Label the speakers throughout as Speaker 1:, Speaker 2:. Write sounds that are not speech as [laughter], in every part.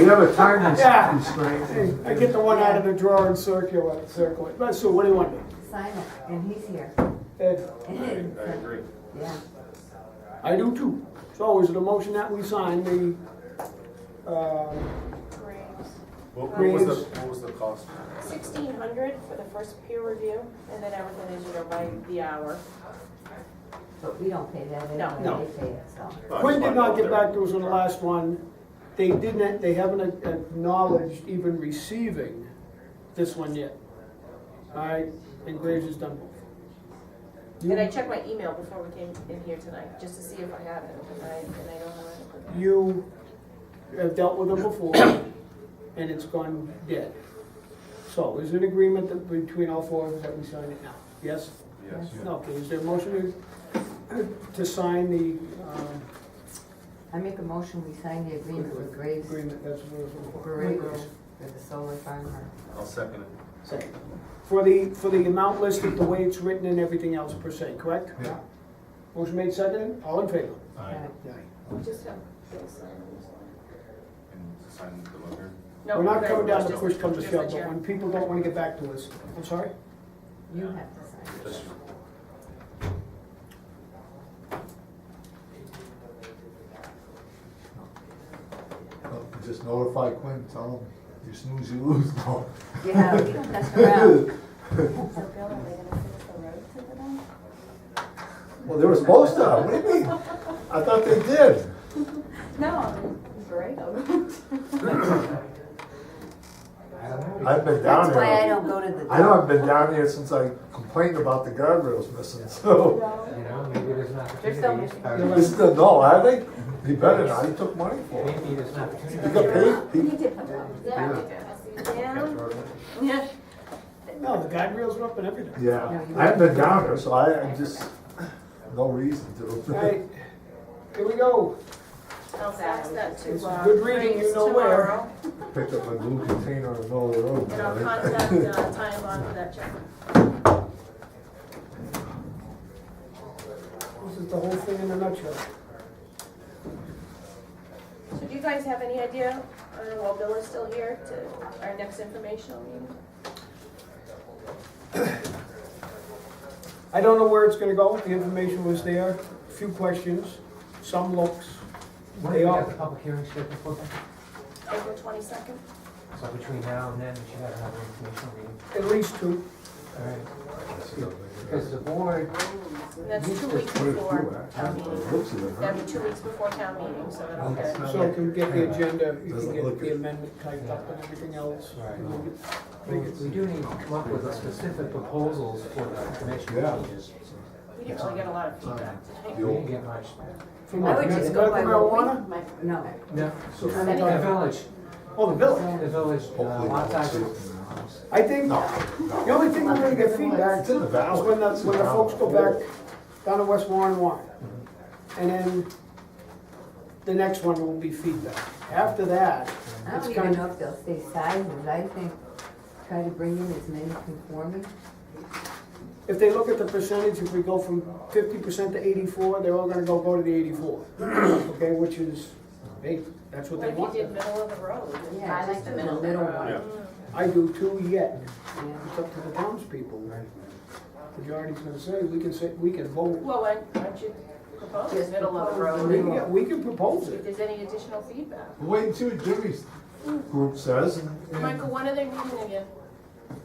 Speaker 1: You have a time
Speaker 2: Yeah.
Speaker 1: constraint.
Speaker 2: I get the one out of the drawer and circle it, circle it. But so what do you want?
Speaker 3: Simon, and he's here.
Speaker 2: Ed,
Speaker 3: I agree. Yeah,
Speaker 2: I do too. So is it a motion that we sign the, uh,
Speaker 4: What, what was the,
Speaker 2: Graves.
Speaker 4: what was the cost?
Speaker 5: Sixteen hundred for the first peer review, and then everything is, you know, by the hour.
Speaker 3: but we don't pay that
Speaker 5: No.
Speaker 2: No.
Speaker 3: anyway, they pay it, so.
Speaker 2: Quinn did not get back to us on the last one. They didn't, they haven't acknowledged even receiving this one yet. All right, and Graves has done both.
Speaker 5: And I checked my email before we came in here tonight, just to see if I had it, and I, and I don't have it.
Speaker 2: You have dealt with them before, and it's gone dead. So is it agreement that between all four of us that we sign it now? Yes?
Speaker 4: Yes.
Speaker 2: Okay, is there a motion to, to sign the, um,
Speaker 3: I make a motion, we sign the agreement with Graves
Speaker 2: agreement, that's what it was for.
Speaker 3: Borrego for the solar farmer.
Speaker 4: I'll second it.
Speaker 2: Second. For the, for the amount listed, the way it's written and everything else per se, correct?
Speaker 4: Yeah.
Speaker 2: Motion made second, all in favor?
Speaker 3: Uh,
Speaker 4: Aye.
Speaker 5: We just have Bill sign it.
Speaker 4: And sign the letter.
Speaker 5: No,
Speaker 2: We're not
Speaker 5: okay,
Speaker 2: coming down to
Speaker 5: just-
Speaker 2: push come to
Speaker 5: just the
Speaker 2: shove, but
Speaker 5: chair.
Speaker 2: when people don't wanna get back to us, I'm sorry?
Speaker 3: You have to sign it.
Speaker 4: Just,
Speaker 6: Just notify Quinn, tell him, you snooze, you lose. No.
Speaker 3: Yeah, we don't
Speaker 2: [laughs]
Speaker 3: mess around.
Speaker 5: So Bill, are they gonna fix the road to the dump?
Speaker 6: [laughs] Well, they were supposed to, what do you mean? I thought they did.
Speaker 5: No, [laughs] great.
Speaker 6: I've been down
Speaker 3: That's
Speaker 6: here.
Speaker 3: why I don't go to the.
Speaker 6: I know I've been down here since I complained about the guardrails missing, so.
Speaker 7: You know, maybe there's an
Speaker 5: There's some-
Speaker 7: opportunity.
Speaker 6: They still, no, I think, he better not, he took money for it.
Speaker 7: Maybe there's an opportunity.
Speaker 6: He got paid, he,
Speaker 5: Yeah. Yeah.
Speaker 2: No, the guide rails were up and everything.
Speaker 6: yeah, I haven't been down here, so I, I just, no reason
Speaker 2: All
Speaker 6: to. [laughs]
Speaker 2: right, here we go.
Speaker 5: I'll fax that to,
Speaker 2: This is
Speaker 5: uh,
Speaker 2: good reading, you
Speaker 5: Graves
Speaker 2: know where.
Speaker 5: tomorrow,
Speaker 6: Picked up my blue container in the middle of the road.
Speaker 5: And I'll contact, uh, Ty Bond for that check.
Speaker 2: This is the whole thing in a nutshell.
Speaker 5: So do you guys have any idea, I don't know, while Bill is still here, to our next informational meeting?
Speaker 2: I don't know where it's gonna go, the information was there, few questions, some looks.
Speaker 7: When do
Speaker 2: They
Speaker 7: you
Speaker 2: are.
Speaker 7: have the public hearing scheduled for?
Speaker 5: April twenty-second?
Speaker 7: So between now and then, you should have another informational meeting.
Speaker 2: At least two.
Speaker 7: All right. Because the board,
Speaker 5: That's two weeks before town meeting.
Speaker 6: Looks at it, huh?
Speaker 5: That'd be two weeks before town meeting, so that'll
Speaker 7: it's
Speaker 5: get.
Speaker 7: not
Speaker 2: So you
Speaker 7: like,
Speaker 2: can get the agenda, you can
Speaker 6: Doesn't
Speaker 2: get
Speaker 6: look
Speaker 2: the
Speaker 6: good.
Speaker 2: amendment typed up and everything else.
Speaker 7: Right.
Speaker 2: And we'll get-
Speaker 7: we we do need to come up with specific proposals for the
Speaker 6: Yeah.
Speaker 7: commission changes.
Speaker 5: We didn't really get a lot of feedback
Speaker 7: We
Speaker 5: tonight.
Speaker 7: didn't get much.
Speaker 2: From
Speaker 3: I would just go by
Speaker 2: medical
Speaker 3: what
Speaker 2: marijuana?
Speaker 3: we. No.
Speaker 7: No.
Speaker 2: So from
Speaker 7: The
Speaker 2: the-
Speaker 7: village,
Speaker 2: Oh, the village.
Speaker 7: the village, uh,
Speaker 6: Hopefully
Speaker 7: lot
Speaker 6: not.
Speaker 7: size.
Speaker 2: I think, the only thing we're gonna get feedback
Speaker 6: It's in the
Speaker 2: is
Speaker 6: valley.
Speaker 2: when the,
Speaker 6: It's in
Speaker 2: when the
Speaker 6: valley.
Speaker 2: folks go back down to West Warren Warren.
Speaker 6: Mm-hmm.
Speaker 2: And then the next one will be feedback. After that,
Speaker 3: I
Speaker 2: It's
Speaker 3: don't
Speaker 2: kind
Speaker 3: even know if they'll stay sizes. I think try to bring in as many conforming.
Speaker 2: if they look at the percentage, if we go from fifty percent to eighty-four, they're all gonna go, go to the eighty-four.
Speaker 5: [clears throat]
Speaker 2: Okay, which is, hey, that's what they
Speaker 5: Like you
Speaker 2: want.
Speaker 5: did middle of the road.
Speaker 3: Yeah, just the middle one.
Speaker 4: Yeah.
Speaker 2: I do too yet.
Speaker 3: Yeah.
Speaker 2: It's up to the townspeople. Majority's gonna say, we can say, we can vote.
Speaker 5: Well, why why don't you propose
Speaker 3: Just
Speaker 5: middle of the
Speaker 3: propose.
Speaker 5: road?
Speaker 2: We can, get- we can propose
Speaker 5: If
Speaker 2: it.
Speaker 5: there's any additional feedback.
Speaker 6: Wait until Jimmy's group says, and and
Speaker 5: Michael, when are they meeting again?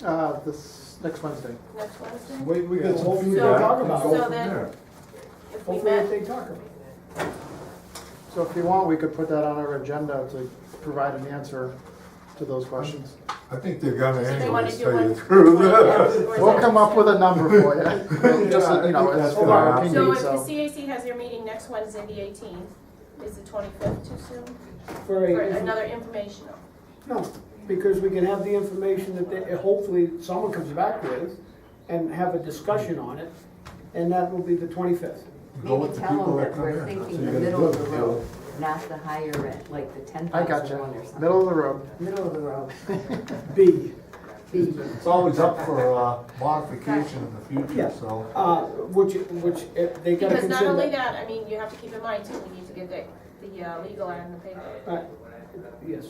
Speaker 8: Uh, this next Wednesday.
Speaker 5: Next Wednesday?
Speaker 6: wait, we get some
Speaker 2: Hopefully
Speaker 5: we
Speaker 6: feedback
Speaker 2: talk
Speaker 6: and
Speaker 2: about it.
Speaker 6: go
Speaker 5: So
Speaker 6: from
Speaker 5: then-
Speaker 6: there.
Speaker 5: If we
Speaker 2: Hopefully if
Speaker 5: met,
Speaker 2: they talk about it.
Speaker 8: So if you want, we could put that on our agenda to provide an answer to those questions.
Speaker 6: I think they're gonna
Speaker 5: So they wanna
Speaker 6: anyways
Speaker 5: do
Speaker 6: tell you
Speaker 5: one-
Speaker 6: the truth. [laughs]
Speaker 5: [laughs] Yeah.
Speaker 8: We'll come up with a number for [laughs] you. Just,
Speaker 6: Yeah, I
Speaker 8: so you know,
Speaker 6: think that's
Speaker 8: it's our
Speaker 6: fine.
Speaker 5: so
Speaker 8: opinion,
Speaker 5: if the
Speaker 8: so.
Speaker 5: CAC has their meeting next Wednesday, the eighteenth, is the twenty-fifth too soon?
Speaker 2: For
Speaker 5: For
Speaker 2: a,
Speaker 5: another informational?
Speaker 2: no, because we can have the information that they, hopefully someone comes back with and have a discussion on it, and that will be the twenty-fifth.
Speaker 6: Go
Speaker 3: Maybe
Speaker 6: with the
Speaker 3: tell
Speaker 6: people
Speaker 3: them
Speaker 6: that
Speaker 3: that
Speaker 6: come in.
Speaker 3: we're
Speaker 6: That's what
Speaker 3: thinking
Speaker 6: you gotta
Speaker 3: the middle of
Speaker 6: do.
Speaker 3: the road, not the higher end, like the ten
Speaker 8: I
Speaker 3: thousand one or
Speaker 8: gotcha.
Speaker 3: something.
Speaker 8: Middle of the road.
Speaker 3: Middle of the road.
Speaker 2: B,
Speaker 3: B.
Speaker 6: It's always up for uh, modification in the future,
Speaker 2: Yeah.
Speaker 6: so.
Speaker 2: uh, which, which, uh, they gotta
Speaker 5: Because not only
Speaker 2: consider.
Speaker 5: that, I mean, you have to keep in mind too, we need to get the, the uh, legal ad in the paper.
Speaker 2: Uh, Yes,